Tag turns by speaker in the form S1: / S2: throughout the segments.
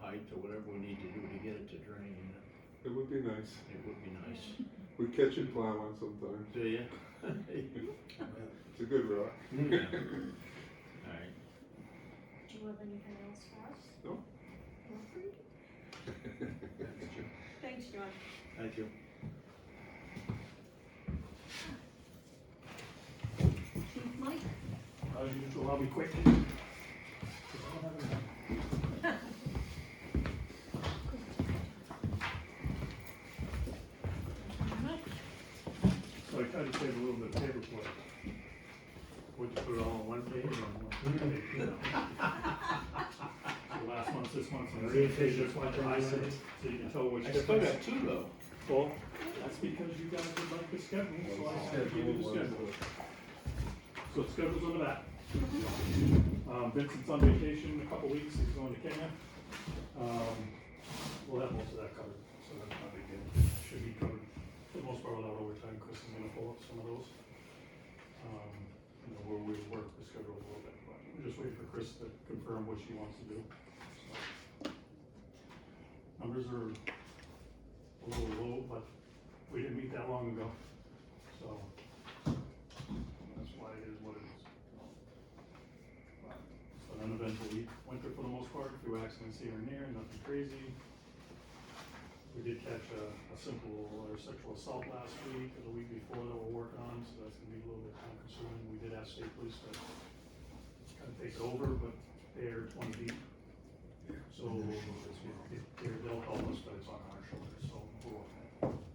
S1: pipe or whatever we need to do to get it to drain, you know,
S2: It would be nice.
S1: it would be nice.
S2: We catch and plow on sometimes.
S1: Do you?
S2: It's a good rock.
S1: Yeah. Alright,
S3: Do you have anything else for us?
S2: No.
S3: Nothing? Thanks, John.
S1: thank you.
S3: Chief Mike?
S4: As usual, I'll be quick. So I tried to save a little bit of paper for it.
S1: Would you put it all on one page or
S4: You know. So Last month, this month, and
S1: Really take
S4: this
S1: your
S4: month, I said, so you can tell which.
S1: one? I still
S4: difference.
S1: got two though.
S4: Well, that's because you guys would like the schedule, so I have to give you the schedule. So the schedule's on the back. Um, Vincent's on vacation in a couple weeks, he's going to Kenya. Um, we'll have most of that covered, so that's not a big deal, should be covered. For the most part, without overtime, Chris is gonna pull up some of those. Um, you know, where we work the schedule a little bit, but we're just waiting for Chris to confirm what she wants to do. so. Numbers are a little low, but we didn't meet that long ago, so that's why it is what it is. But an eventful week- winter for the most part, few accidents here and there, nothing crazy. We did catch a, a simple or sexual assault last week or the week before that we're working on, so that's gonna be a little bit time consuming. We did ask state police to kind of take over, but they're twenty deep. So it- it- they're, they'll help us, but it's on our shoulders, so we're okay.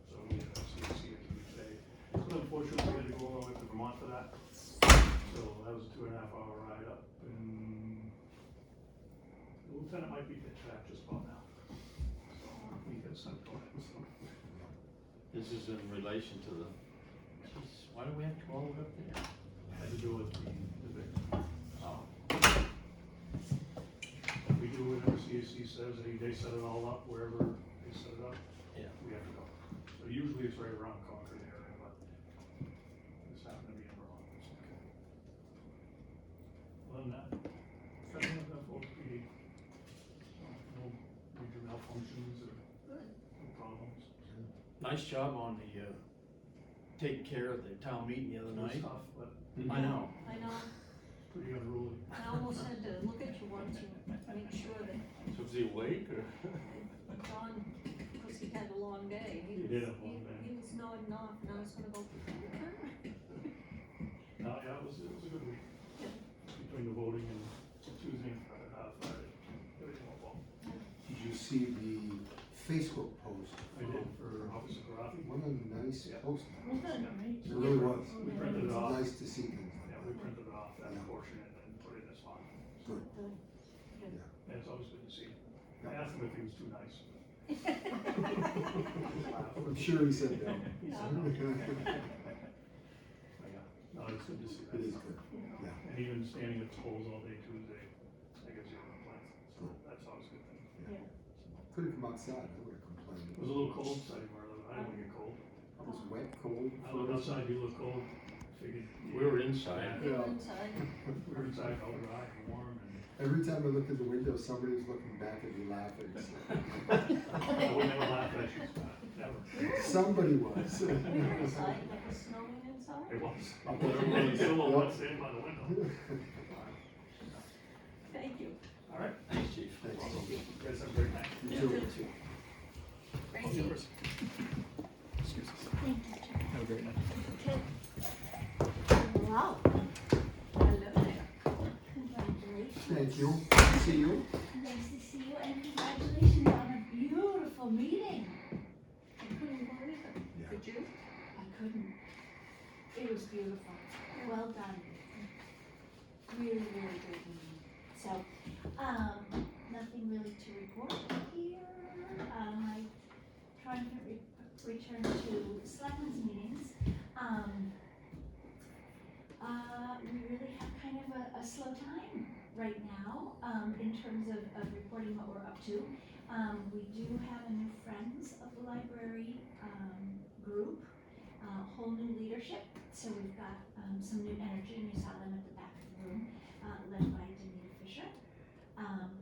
S4: So we had a CAC at the day. So unfortunately, we had to go all the way to Vermont for that. So that was a two and a half hour ride up and the lieutenant might be pitch back just about now. So we got sent for it, so.
S1: This is in relation to the, Jeez, why do we have to go all the way up there?
S4: Had to do with the, the big,
S1: Oh,
S4: we do whatever CAC says, they, they set it all up wherever they set it up.
S1: Yeah.
S4: We have to go. So usually it's right around Concord area, but this happened to be in Vermont, it's okay. Other than that, kind of like that for PD. So, No major malfunctions or no problems.
S1: nice job on the, uh, taking care of the town meeting the other
S4: No
S1: night.
S4: stuff, but
S1: I know.
S3: I know,
S4: pretty unruly.
S3: I almost had to look at you once to make sure that
S1: So is he awake or?
S3: John, because he had a long day.
S4: He
S3: was-
S4: did have a long day.
S3: He was nodding off, and I was gonna go, "Okay."
S4: No, yeah, it was, it was a good week.
S3: Yeah.
S4: Between the voting and Tuesday and Friday, uh, Friday, everything went well.
S5: Did you see the Facebook post?
S4: I did for Officer Karafi.
S5: One of the nice
S4: Yeah.
S5: posts.
S3: Well, good.
S5: It really was.
S4: We printed it off,
S5: Nice to see things
S4: yeah,
S5: like
S4: we
S5: that.
S4: printed it off, that
S5: Yeah.
S4: portion, and then put it in this file.
S5: Good.
S4: And it's always good to see. him. I asked him if he was too nice.
S5: I'm sure he said no.
S4: He said no. But yeah, No, it's good to see that.
S5: It is good.
S4: you know.
S5: Yeah.
S4: And even standing at the polls all day Tuesday, I guess you're on plan, so
S5: Good.
S4: that's always a good thing.
S5: Could have come outside, I would have complained.
S4: It was a little cold, so I didn't wear a little- I didn't want to get cold.
S5: I was wet, cold.
S4: I looked outside, you look cold, figured.
S1: We were inside.
S3: He went inside.
S4: We were inside, all dry and warm and.
S5: Every time I looked at the window, somebody was looking back at me laughing.
S4: I would never laugh at you, Scott, never.
S5: Somebody was.
S3: We were inside, and it was snowing inside.
S4: It was. Everybody still wants to stand by the window.
S3: Thank you.
S4: All right,
S1: Thanks, chief.
S5: Thanks.
S4: you guys have a great night.
S5: You too.
S3: Thank you. Thank you, John.
S4: Have a great night.
S3: Okay. Wow. Hello there. Congratulations.
S5: Thank you. See you.
S3: Nice to see you and congratulations on a beautiful meeting. I couldn't believe it.
S5: Yeah.
S3: Did you?
S6: I couldn't. It was beautiful. Well done. Really, really good meeting. So, um, nothing really to report here. Um, I tried to re- return to selectmen's meetings. Um, uh, we really have kind of a, a slow time right now, um, in terms of, of reporting what we're up to. Um, we do have a new Friends of the Library, um, group uh, whole new leadership. So we've got um, some new energy, and you saw them at the back of the room, uh, led by Danita Fisher. Um,